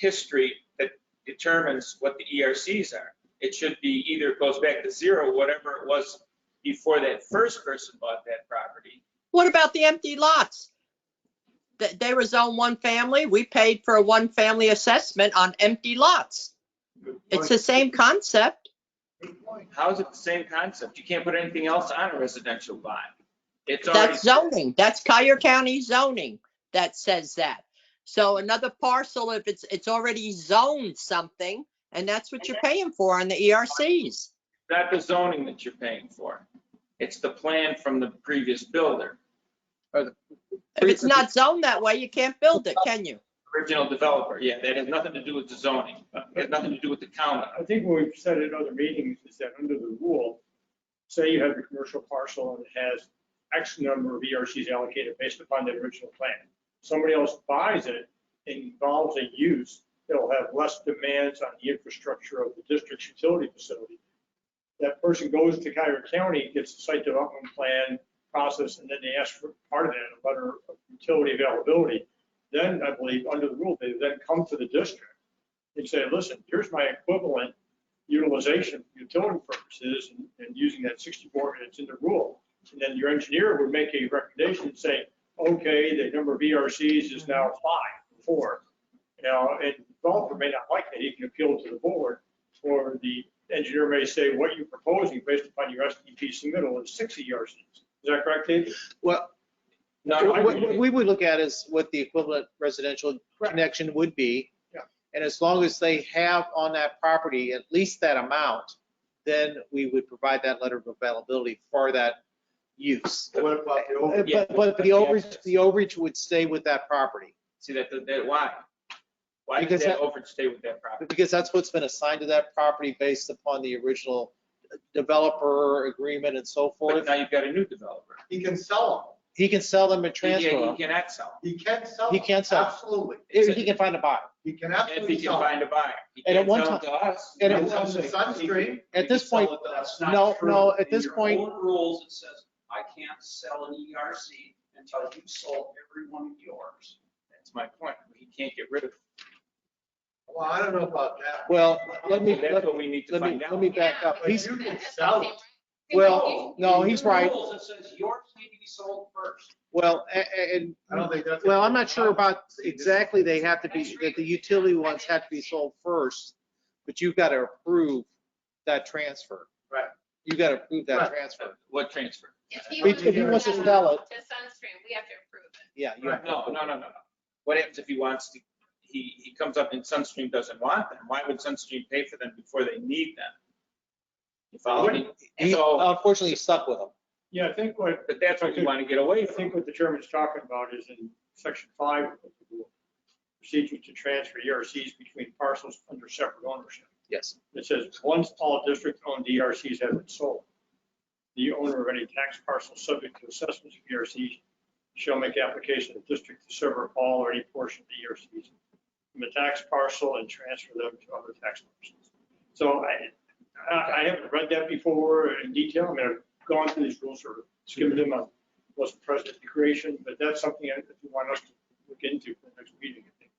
history that determines what the ERCs are. It should be either it goes back to zero, whatever it was before that first person bought that property. What about the empty lots? They, they were zone one family. We paid for a one family assessment on empty lots. It's the same concept. How is it the same concept? You can't put anything else on a residential lot. It's already. That's zoning. That's Cuyahoga County zoning that says that. So another parcel, if it's, it's already zoned something, and that's what you're paying for on the E ERCs. not the zoning that you're paying for. It's the plan from the previous builder, If it's not zoned that way, you can't build it, can you? original developer. Yeah, that has nothing to do with the zoning. It has nothing to do with the county. Uh, I think what we've said in other meetings is that under the rule, say you have a commercial parcel and it has X number of ERCs allocated based upon the original plan. Somebody else buys it, and involves a use, that'll have less demands on the infrastructure of the district's utility facility. That person goes to Cuyahoga County, gets the site development plan process, and then they ask for part of that, a letter of utility availability. Then I believe, under the rule, they then come to the district and say, listen, here's my equivalent utilization for utility purposes and- and using that 64, and it's in the rule. And then your engineer would make a recommendation and say, okay, the number of ERCs is now five, four. Now, and developer may not like that, he can appeal to the board, or the engineer may say, what you're proposing based upon your STP submittal is six ERCs. Is that correct, Dave? Well, No, Sure, what, no, what- what we would look at is what the equivalent residential Correct. connection would be. Yeah. And as long as they have on that property at least that amount, then we would provide that letter of availability for that use. What about the Uh, old? Oh, Yeah. But, but the overage, the overage would stay with that property, see that, that, why? Why does Because that that- overstay with that property? because that's what's been assigned to that property based upon the original developer agreement and so But forth. now you've got a new developer. He can sell He can sell them and He transfer he them, cannot sell. them. He can sell. He them. can sell them. Absolutely. if he can find a buyer. He can If he absolutely can sell. them. find a buyer. He And at can't one sell it to us. And at It's on the Sunstream. At this point, That's not no, true. no, at In this your point, own rules, it says, I can't sell an ERC until you've sold every one of yours. That's my point. He can't get rid of. Well, I don't know about that. well, let me, That's let- what we need to let me, find out. let me back up. But He's, you can sell it. well, no, In he's your right. Rules, it says yours need to be sold first. Well, a- a- and, I don't think that's. well, I'm not sure about exactly they have to be, that the utility ones have to be sold first, but you've got to approve that transfer. Right. You've got to approve Right. that transfer. What transfer? If he We- wants if he to wants to sell sell it- To Sunstream, we have to approve it. Yeah, you- No, no, no, no, no. What happens if he wants to, he, he comes up and Sunstream doesn't want them? Why would Sunstream pay for them before they need them? You follow me? he So, unfortunately he's stuck with them. Yeah, I think what but that's what we want to get away I from. think what the chairman's talking about is in section five of the rule, procedure to transfer ERCs between parcels under separate ownership. Yes. It says, once all district-owned ERCs E have been sold, the owner of any tax parcel subject to assessments of ERCs shall make application to the district to sever all or any portion of the E ERCs from the tax parcel and transfer them to other tax parcels. So I- I, I haven't read that before in detail. I mean, I've gone through these rules or skimmed them on what's present at the creation, but that's something I- that you want us to look into for the next meeting, I think.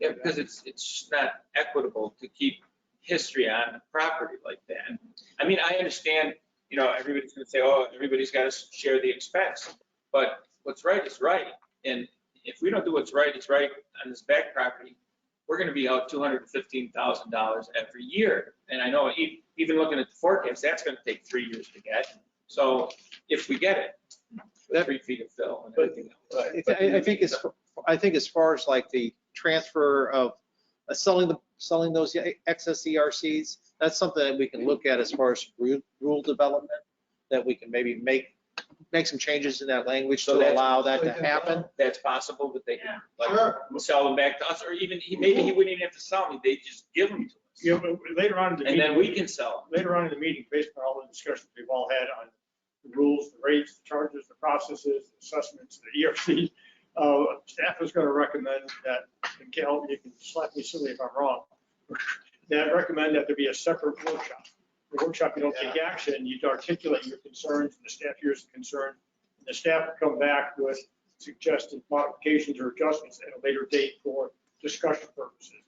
Yeah, because it's, it's not equitable to keep history on the property like that. I mean, I understand, you know, everybody's gonna say, oh, everybody's gotta share the expense. But what's right is right. And if we don't do what's right, it's right on this back property, we're gonna be out two hundred and fifteen thousand dollars every year. And I know, e- even looking at the forecast, that's gonna take three years to get. So if we get it, That- three feet of fill and But- everything else. I, I think as, I think as far as like the transfer of uh, selling the, selling those E, excess ERCs, that's something that we can look at as far as ru- rule development, that we can maybe make, make some changes in that language to So that's- allow that to happen. That's possible, but they can, like, Sure. sell them back to us, or even, he- maybe he wouldn't even have to sell them, they just give them to You us. know, but later on in the And meeting. then we can sell later on in the meeting, based on all the discussions we've all had on the rules, the rates, the charges, the processes, the assessments, the ERC, uh, staff is going to recommend that, and Cal, you can slap me silly if I'm wrong, that recommend that there be a separate workshop. The workshop, you don't take action, you articulate your concerns, and the staff hears the concern. and The staff will come back with suggested modifications or adjustments at a later date for discussion purposes.